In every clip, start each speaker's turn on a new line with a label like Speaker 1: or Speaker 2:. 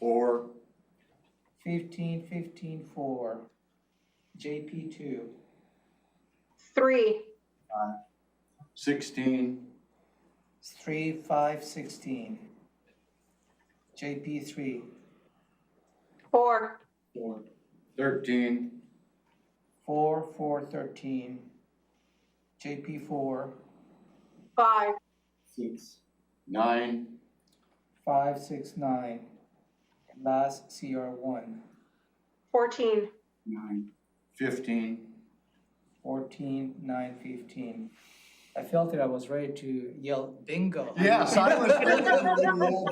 Speaker 1: or
Speaker 2: fifteen, fifteen, four, JP two,
Speaker 3: three,
Speaker 1: sixteen,
Speaker 2: three, five, sixteen, JP three,
Speaker 3: four,
Speaker 1: or thirteen,
Speaker 2: four, four, thirteen, JP four,
Speaker 3: five,
Speaker 1: six, nine,
Speaker 2: five, six, nine, and last CR one,
Speaker 3: fourteen,
Speaker 1: nine, fifteen,
Speaker 2: fourteen, nine, fifteen. I felt that I was ready to yell bingo.
Speaker 4: Yes, I was.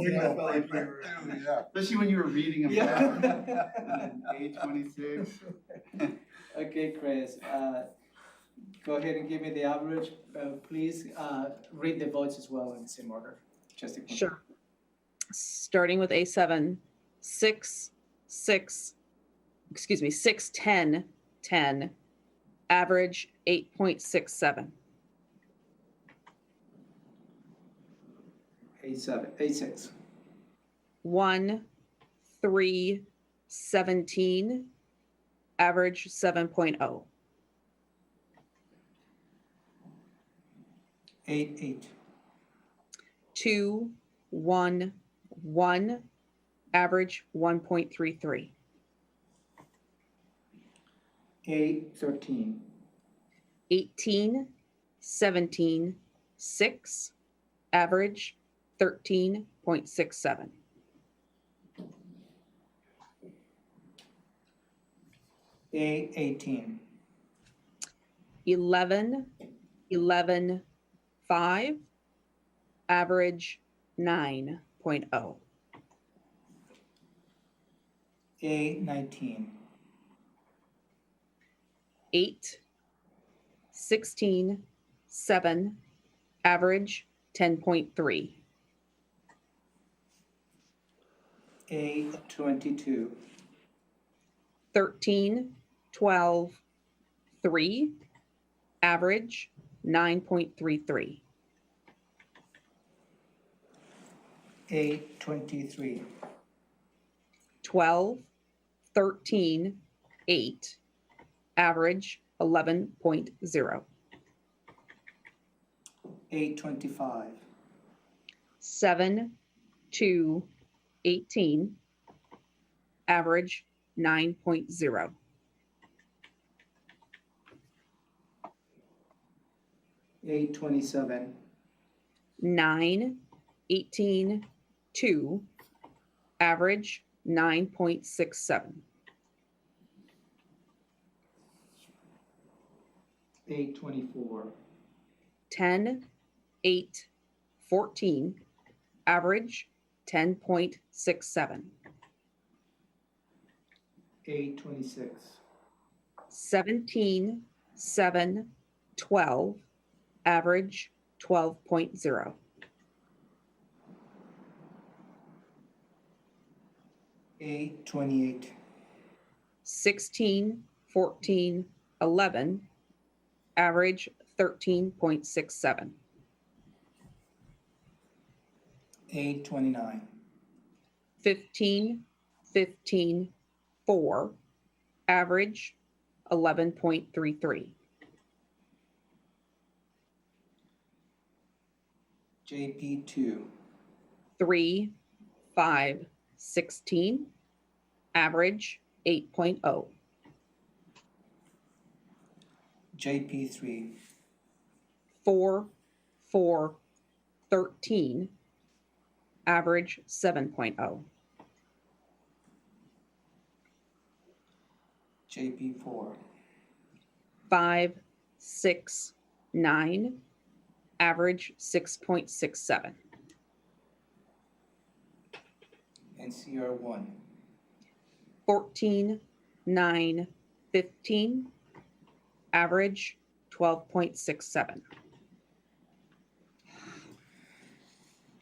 Speaker 1: Yeah.
Speaker 4: Yeah, Especially when you were reading them. back.
Speaker 2: Yeah.
Speaker 4: Page twenty-six.
Speaker 2: Okay, Chris, uh, go ahead and give me the average. Uh, Please uh, read the votes as well in the same order, just to. confirm.
Speaker 5: Sure. Starting with A seven, six, six, excuse me, six, ten, ten, average eight point six seven.
Speaker 2: Eight seven, eight six,
Speaker 5: One, three, seventeen, average seven oh.
Speaker 2: eight eight,
Speaker 5: Two, one, one, average one point three three.
Speaker 2: eight thirteen,
Speaker 5: 18, 17, 6, average 13.67.
Speaker 2: eight eighteen,
Speaker 5: 11, 11, 5, average oh. 9.0.
Speaker 2: eight nineteen,
Speaker 5: 8, 16, 7, average 10.3.
Speaker 2: eight twenty-two,
Speaker 5: 13, 12, 3, average 9.33.
Speaker 2: eight twenty-three,
Speaker 5: 12, 13, 8, average 11.0,
Speaker 2: eight twenty-five,
Speaker 5: 7, 2, 18, average 9.0,
Speaker 2: eight twenty-seven,
Speaker 5: 9, 18, 2, average 9.67,
Speaker 2: eight twenty-four,
Speaker 5: 10, 8, 14, average 10.67,
Speaker 2: eight twenty-six,
Speaker 5: 17, 7, 12, average 12.0,
Speaker 2: eight twenty-eight,
Speaker 5: 16, 14, 11, average 13.67,
Speaker 2: eight twenty-nine,
Speaker 5: 15, 15, 4, average 11.33,
Speaker 2: JP two,
Speaker 5: 3, 5, 16, average oh. 8.0,
Speaker 2: JP three,
Speaker 5: 4, 4, 13, average oh. 7.0,
Speaker 2: JP four,
Speaker 5: 5, 6, 9, average 6.67,
Speaker 2: and CR one,
Speaker 5: 14, 9, 15, average 12.67.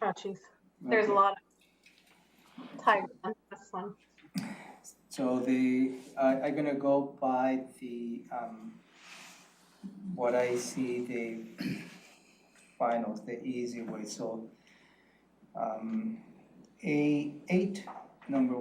Speaker 3: oh jeez, there's a lot of type on this one.
Speaker 2: So the, I, I'm gonna go by the, um, what I see the finals, the easy way, so, um, A eight, number